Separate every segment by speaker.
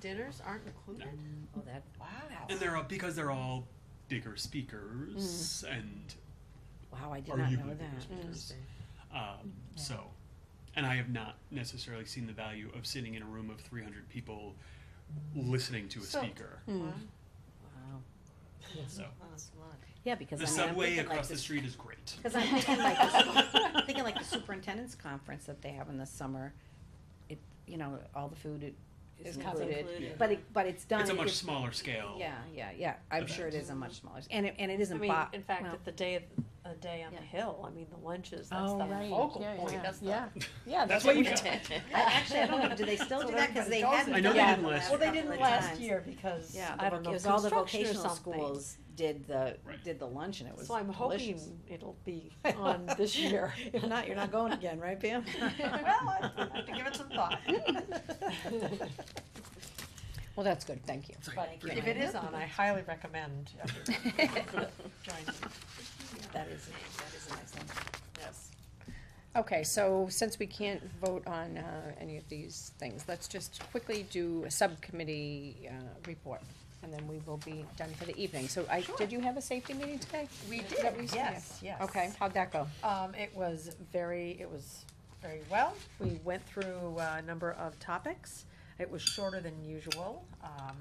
Speaker 1: Dinners aren't included?
Speaker 2: Oh, that
Speaker 1: Wow.
Speaker 3: And they're all, because they're all bigger speakers,
Speaker 2: Mm.
Speaker 3: and
Speaker 2: wow! I did
Speaker 3: Or
Speaker 2: not
Speaker 3: you
Speaker 2: know
Speaker 3: could be
Speaker 2: that.
Speaker 3: speakers. um, so, and I have not necessarily seen the value of sitting in a room of 300 people listening to a
Speaker 1: So-
Speaker 3: speaker.
Speaker 2: Hmm.
Speaker 1: Wow.
Speaker 2: Wow.
Speaker 3: So,
Speaker 1: That's a lot.
Speaker 2: Yeah, because
Speaker 3: the
Speaker 2: I mean, I'm
Speaker 3: subway
Speaker 2: thinking like
Speaker 3: across the
Speaker 2: this-
Speaker 3: street is great.
Speaker 2: Because I'm thinking like, the- I'm thinking like the superintendent's conference that they have in the summer, it, you know, all the food i- is
Speaker 4: It's covered.
Speaker 2: included.
Speaker 1: Included.
Speaker 2: But it, but it's done.
Speaker 3: It's a much
Speaker 2: it's-
Speaker 3: smaller scale.
Speaker 2: Yeah, yeah, yeah, I'm sure it is a much smaller, and it, and it
Speaker 4: I
Speaker 2: isn't
Speaker 4: mean,
Speaker 2: bo-
Speaker 4: in fact,
Speaker 2: well,
Speaker 4: at the day of the day on
Speaker 2: Yeah.
Speaker 4: the hill, I mean, the lunches. That's
Speaker 2: Oh,
Speaker 4: the
Speaker 2: right.
Speaker 4: focal
Speaker 5: Yeah,
Speaker 4: point.
Speaker 5: yeah,
Speaker 4: That's
Speaker 5: yeah.
Speaker 4: the
Speaker 5: Yeah,
Speaker 3: That's
Speaker 5: that's
Speaker 3: what
Speaker 5: what
Speaker 3: you
Speaker 5: we
Speaker 3: did.
Speaker 5: did.
Speaker 2: I actually, I don't know, do they still
Speaker 5: So
Speaker 2: do that, cause they
Speaker 5: everybody
Speaker 2: haven't
Speaker 5: goes
Speaker 3: I know
Speaker 2: done
Speaker 3: they
Speaker 2: that
Speaker 3: didn't last year.
Speaker 2: the last
Speaker 5: Well, they
Speaker 2: couple
Speaker 5: didn't
Speaker 2: of
Speaker 5: last
Speaker 2: times.
Speaker 5: year because
Speaker 4: Yeah.
Speaker 2: I don't know, it was all the vocational schools did the,
Speaker 3: Right.
Speaker 2: did the lunch and it was
Speaker 4: So I'm hoping
Speaker 2: delicious.
Speaker 4: it'll be on this year.
Speaker 2: If not, you're not going again, right, Pam?
Speaker 5: Well, I have to give it some thought.
Speaker 2: Well, that's good, thank you.
Speaker 3: Sorry,
Speaker 5: But
Speaker 3: forget
Speaker 5: if it is on, I highly recommend everyone joining.
Speaker 2: That is, that is an excellent.
Speaker 5: Yes.
Speaker 6: Okay, so since we can't vote on uh, any of these things, let's just quickly do a subcommittee uh, report, and then we will be done for the evening. So I, did you have a safety meeting today?
Speaker 5: We
Speaker 6: That we-
Speaker 5: did, yes, yes.
Speaker 6: Okay, how'd that go?
Speaker 5: Um, it was very, it was very well. We went through uh, a number of topics. It was shorter than usual. Um,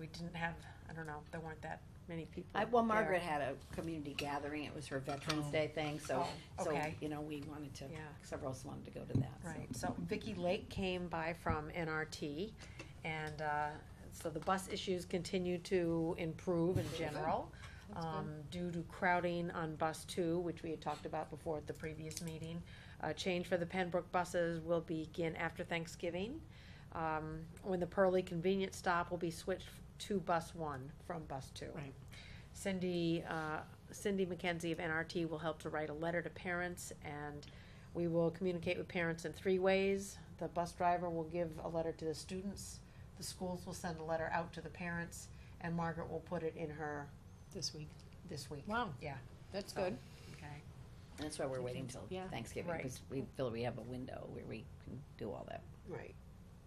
Speaker 5: we didn't have, I don't know, there weren't that many people.
Speaker 2: I, well,
Speaker 5: there.
Speaker 2: Margaret had a community gathering, it was her Veterans Day thing, so,
Speaker 5: Oh,
Speaker 2: so,
Speaker 5: okay.
Speaker 2: you know, we wanted to,
Speaker 5: Yeah.
Speaker 2: several of us wanted to go to that, so.
Speaker 5: Right, so Vicky Lake came by from NRT, and, uh, so the bus issues continue to improve in general. Um, due to crowding on bus two, which we had talked about before at the previous meeting. A change for the Pembroke buses will begin after Thanksgiving. Um, when the Pearly convenience stop will be switched to bus one from bus two.
Speaker 2: Right.
Speaker 5: Cindy, uh, Cindy McKenzie of NRT will help to write a letter to parents and we will communicate with parents in three ways. The bus driver will give a letter to the students, the schools will send a letter out to the parents, and Margaret will put it in her
Speaker 6: This week. Oh,
Speaker 5: this week.
Speaker 6: Wow,
Speaker 5: Yeah,
Speaker 6: that's
Speaker 5: So-
Speaker 6: good.
Speaker 5: okay.
Speaker 2: That's why we're waiting till
Speaker 6: Yeah.
Speaker 2: Thanksgiving,
Speaker 5: Right.
Speaker 2: because we feel we have a window where we can do all that.
Speaker 5: Right.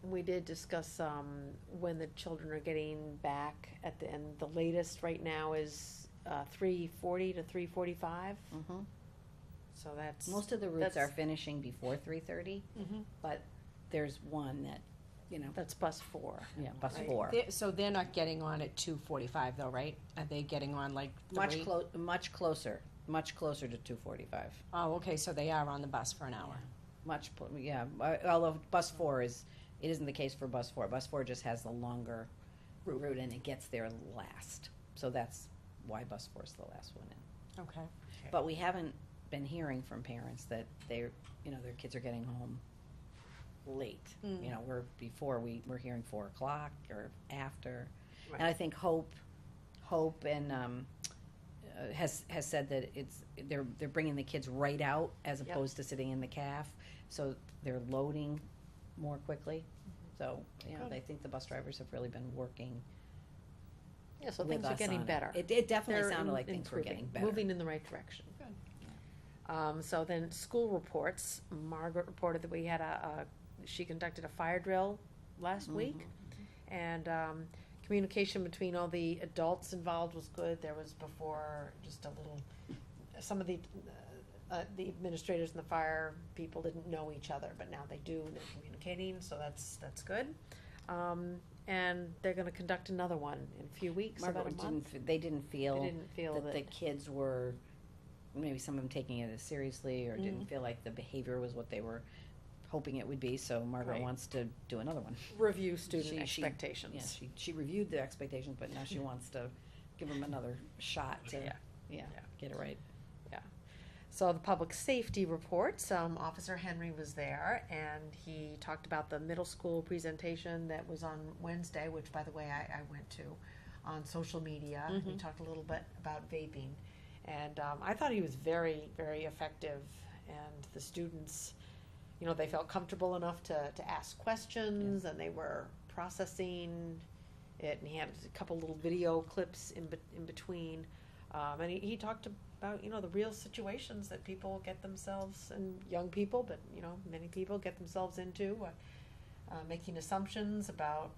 Speaker 4: We did discuss um, when the children are getting back at the end. The latest right now is uh, three forty to three forty-five.
Speaker 2: Mhm.
Speaker 5: So that's,
Speaker 2: Most of the routes are
Speaker 4: That's-
Speaker 2: finishing before three thirty, but there's one that, you know,
Speaker 4: That's bus four.
Speaker 2: yeah, Mm-hmm. bus
Speaker 4: Right.
Speaker 2: four.
Speaker 6: They- So they're not getting on at two forty-five though, right? Are they getting on like
Speaker 2: Much
Speaker 6: three?
Speaker 2: clo- much closer, much closer to two forty-five,
Speaker 6: Oh, okay, so they are on the bus for an hour.
Speaker 2: much, pl- yeah, uh, although bus four is, it isn't the case for bus four, bus four just has the longer route and it gets there last, so that's why bus four's the last one in.
Speaker 6: Okay.
Speaker 2: But we haven't been hearing from parents that they're, you know, their kids are getting home late.
Speaker 4: Mm.
Speaker 2: You know, we're before we we're hearing four o'clock or after, and I think Hope, Hope and um, uh, has has said that it's they're they're bringing the kids right out as opposed to sitting in the calf, so they're loading more quickly.
Speaker 4: Mm-hmm.
Speaker 2: So you know,
Speaker 5: Good.
Speaker 2: they think the bus drivers have really been working.
Speaker 4: Yeah, so
Speaker 2: with
Speaker 4: things are
Speaker 2: us
Speaker 4: getting
Speaker 2: on it.
Speaker 4: better.
Speaker 2: It, it definitely
Speaker 5: They're
Speaker 2: sounded
Speaker 5: im-
Speaker 2: like things were
Speaker 5: improving,
Speaker 2: getting better.
Speaker 5: Moving in the right direction. Um, so then school reports, Margaret reported that we had a, a, she conducted a fire drill last
Speaker 2: Mm-hmm.
Speaker 5: week. And, um, communication between all the adults involved was good. There was before just a little, some of the, uh, uh, the administrators and the fire people didn't know each other, but now they do, and they're communicating, so that's, that's good. Um, and they're gonna conduct another one in a few weeks, about
Speaker 2: Margaret
Speaker 4: a month.
Speaker 2: didn't. f- They didn't
Speaker 4: I
Speaker 2: feel.
Speaker 4: didn't feel
Speaker 2: that
Speaker 4: that.
Speaker 2: the kids were maybe some of them taking it as seriously or
Speaker 4: Mm-hmm.
Speaker 2: didn't feel like the behavior was what they were hoping it would be so margaret
Speaker 4: Right.
Speaker 2: wants to do another one
Speaker 4: review student
Speaker 2: She- she-
Speaker 4: expectations.
Speaker 2: yeah she, she reviewed the expectations but now she wants to give them another shot to yeah,
Speaker 5: Yeah. Yeah.
Speaker 2: get it right
Speaker 5: So the public safety reports, um, Officer Henry was there and he talked about the middle school presentation that was on Wednesday, which by the way, I, I went to on social media. He talked a little bit about vaping. And um, I thought he was very, very effective. And the students, you know, they felt comfortable enough to, to ask questions and they were processing it. And he had a couple little video clips in, bet- in between. Um, and he, he talked about you know the real situations that people get themselves and young people, but you know many people get themselves into, uh, uh, making assumptions about